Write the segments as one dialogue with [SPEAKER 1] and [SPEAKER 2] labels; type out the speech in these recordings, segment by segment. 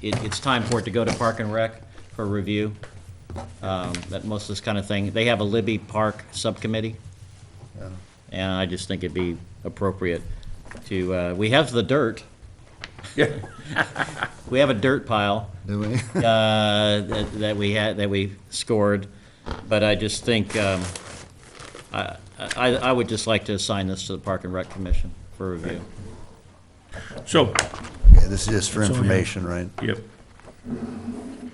[SPEAKER 1] it, it's time for it to go to Park and Rec for review. Um, That most of this kind of thing, they have a Libby Park Subcommittee. And I just think it'd be appropriate to, uh, we have the dirt. We have a dirt pile
[SPEAKER 2] Do we?
[SPEAKER 1] uh, that that we had, that we scored, but I just think, um, I, I I would just like to assign this to the Park and Rec Commission for review.
[SPEAKER 3] So,
[SPEAKER 2] Yeah, This is just for information, right?
[SPEAKER 3] yep,
[SPEAKER 4] Do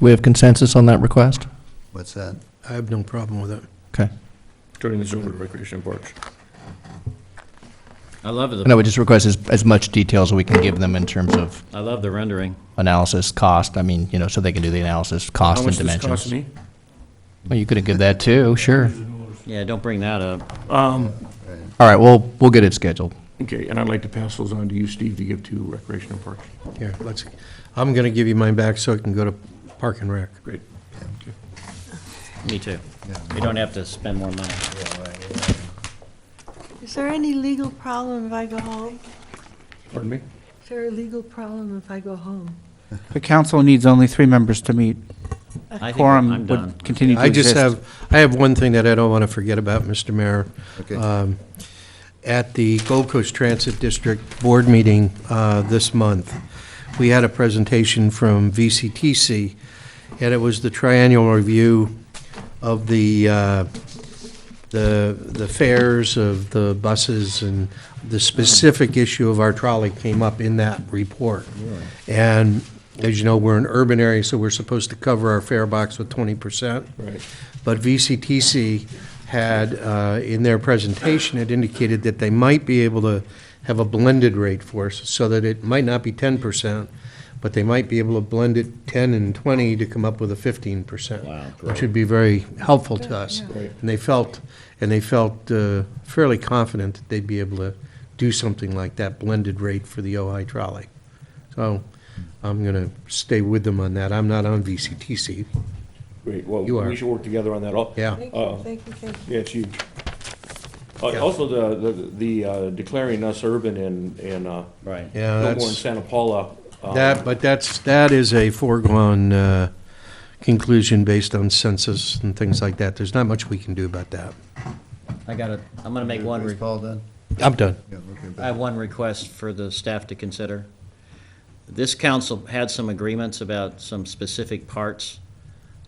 [SPEAKER 4] we have consensus on that request?
[SPEAKER 2] What's that?
[SPEAKER 5] I have no problem with it.
[SPEAKER 4] Okay.
[SPEAKER 3] turning this over to Recreation Parks.
[SPEAKER 1] I love the,
[SPEAKER 4] And I would just request as, as much detail as we can give them in terms of
[SPEAKER 1] I love the rendering.
[SPEAKER 4] analysis, cost, I mean, you know, so they can do the analysis,
[SPEAKER 3] How
[SPEAKER 4] cost and
[SPEAKER 3] much does this cost
[SPEAKER 4] dimensions.
[SPEAKER 3] me?
[SPEAKER 4] Well, you could have give that too, sure.
[SPEAKER 1] Yeah, don't bring that up.
[SPEAKER 4] All right, well, we'll get it scheduled.
[SPEAKER 3] Okay, and I'd like to pass those on to you, Steve, to give to Recreation and Parks.
[SPEAKER 5] Here, let's, I'm going to give you mine back so it can go to Park and Rec.
[SPEAKER 3] Great. Okay.
[SPEAKER 1] Me too.
[SPEAKER 2] Yeah.
[SPEAKER 1] We don't have to spend more money.
[SPEAKER 6] Is there any legal problem if I go home?
[SPEAKER 3] Pardon me?
[SPEAKER 6] Is there a legal problem if I go home?
[SPEAKER 7] The council needs only three members to meet.
[SPEAKER 1] I think I'm
[SPEAKER 7] Quorum
[SPEAKER 1] done.
[SPEAKER 7] would continue to
[SPEAKER 5] I
[SPEAKER 7] exist.
[SPEAKER 5] just have, I have one thing that I don't want to forget about, Mr. Mayor.
[SPEAKER 2] Okay.
[SPEAKER 5] Um, At the Gold Coast Transit District Board meeting uh, this month, we had a presentation from VCTC, and it was the triennial review of the, uh, the the fares of the buses, and the specific issue of our trolley came up in that report. And as you know, we're an urban area, so we're supposed to cover our fare box with 20%.
[SPEAKER 3] Right.
[SPEAKER 5] But VCTC had, uh, in their presentation, it indicated that they might be able to have a blended rate for us, so that it might not be 10%, but they might be able to blend it 10 and 20 to come up with a 15%.
[SPEAKER 1] Wow,
[SPEAKER 5] Which would be very helpful to us.
[SPEAKER 3] Right.
[SPEAKER 5] And they felt, and they felt uh, fairly confident that they'd be able to do something like that blended rate for the OI trolley. So I'm going to stay with them on that. I'm not on VCTC.
[SPEAKER 3] Great, well,
[SPEAKER 5] You are.
[SPEAKER 3] we should work together on that all.
[SPEAKER 5] Yeah.
[SPEAKER 6] Thank
[SPEAKER 3] Uh,
[SPEAKER 6] you, thank you, thank you.
[SPEAKER 3] Yeah, it's huge. Uh,
[SPEAKER 5] Yeah.
[SPEAKER 3] Also, the, the- the uh, declaring us urban in, in, uh,
[SPEAKER 1] Right.
[SPEAKER 5] Yeah,
[SPEAKER 3] no
[SPEAKER 5] that's-
[SPEAKER 3] more in Santa Paula. um,
[SPEAKER 5] That, but that's, that is a foregone uh, conclusion based on census and things like that. There's not much we can do about that.
[SPEAKER 1] I gotta, I'm gonna make one,
[SPEAKER 2] Is
[SPEAKER 1] re-
[SPEAKER 2] Paul done?
[SPEAKER 5] I'm done.
[SPEAKER 2] Yeah, okay,
[SPEAKER 1] I
[SPEAKER 2] but-
[SPEAKER 1] have one request for the staff to consider. This council had some agreements about some specific parts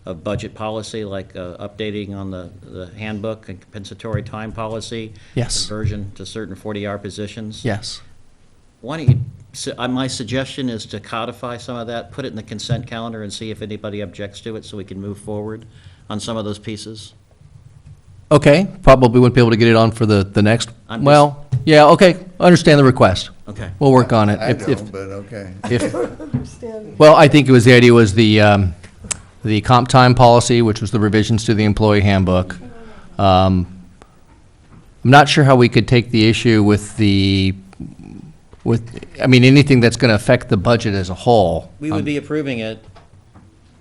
[SPEAKER 1] of budget policy, like uh, updating on the, the handbook and compensatory time policy.
[SPEAKER 4] Yes.
[SPEAKER 1] Conversion to certain 40-hour positions.
[SPEAKER 4] Yes.
[SPEAKER 1] Why don't you, so, uh, my suggestion is to codify some of that, put it in the consent calendar and see if anybody objects to it, so we can move forward on some of those pieces.
[SPEAKER 4] Okay, probably wouldn't be able to get it on for the, the next,
[SPEAKER 1] I'm just-
[SPEAKER 4] well, yeah, okay, I understand the request.
[SPEAKER 1] Okay.
[SPEAKER 4] We'll work on it.
[SPEAKER 2] I
[SPEAKER 4] If- if-
[SPEAKER 2] don't, but okay.
[SPEAKER 4] If,
[SPEAKER 6] Understand.
[SPEAKER 4] Well, I think it was, the idea was the, um, the comp time policy, which was the revisions to the employee handbook. Um, I'm not sure how we could take the issue with the, with, I mean, anything that's gonna affect the budget as a whole.
[SPEAKER 1] We would be approving it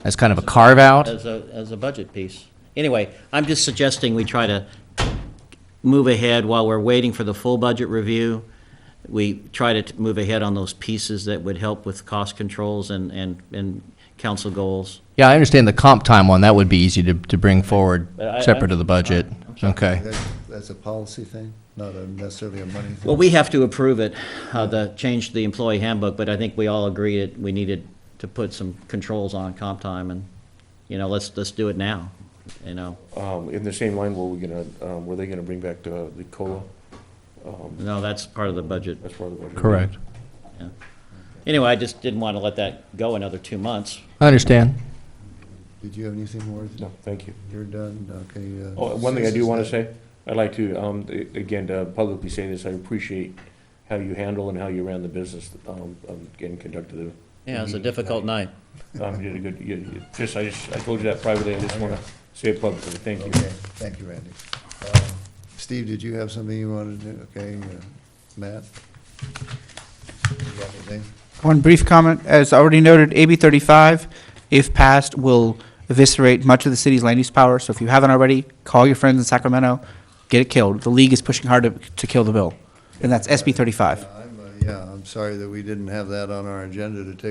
[SPEAKER 4] As kind of a carve-out.
[SPEAKER 1] as a, as a budget piece. Anyway, I'm just suggesting we try to move ahead while we're waiting for the full budget review. We try to t- move ahead on those pieces that would help with cost controls and, and, and council goals.
[SPEAKER 4] Yeah, I understand the comp time one, that would be easy to, to bring forward,
[SPEAKER 1] But I-
[SPEAKER 4] separate of the budget. Okay.
[SPEAKER 2] That- That's a policy thing, not a- necessarily a money thing.
[SPEAKER 1] Well, we have to approve it, uh, the, change to the employee handbook, but I think we all agreed it, we needed to put some controls on comp time and, you know, let's, let's do it now, you know?
[SPEAKER 3] Um, in the same line, were we gonna, um, were they gonna bring back the, the COLA?
[SPEAKER 1] No, that's part of the budget.
[SPEAKER 3] That's part of the budget.
[SPEAKER 1] Anyway, I just didn't want to let that go another two months.
[SPEAKER 4] I understand.
[SPEAKER 2] Did you have anything more?
[SPEAKER 3] No, thank you.
[SPEAKER 2] You're done, okay. uh,
[SPEAKER 3] Oh, one thing I do
[SPEAKER 2] since
[SPEAKER 3] want to
[SPEAKER 2] that-
[SPEAKER 3] say, I'd like to, um, a- again, to publicly say this, I appreciate how you handle and how you ran the business, um, um, and conducted the.
[SPEAKER 1] Yeah, it was a
[SPEAKER 3] Mm-hmm.
[SPEAKER 1] difficult night.
[SPEAKER 3] Um, you did a good, you, you, just, I just, I told you that privately, I just want to say it publicly, thank you.
[SPEAKER 2] Okay, thank you, Randy. Uh, Steve, did you have something you wanted to do? Okay, uh, Matt? You got anything?
[SPEAKER 7] One brief comment, as already noted, AB 35, if passed, will eviscerate much of the city's land use power, so if you haven't already, call your friends in Sacramento, get it killed. The league is pushing hard to, to kill the bill, and that's SB 35.
[SPEAKER 2] Yeah, I'm, uh, Yeah, I'm sorry that we didn't have that on our agenda to take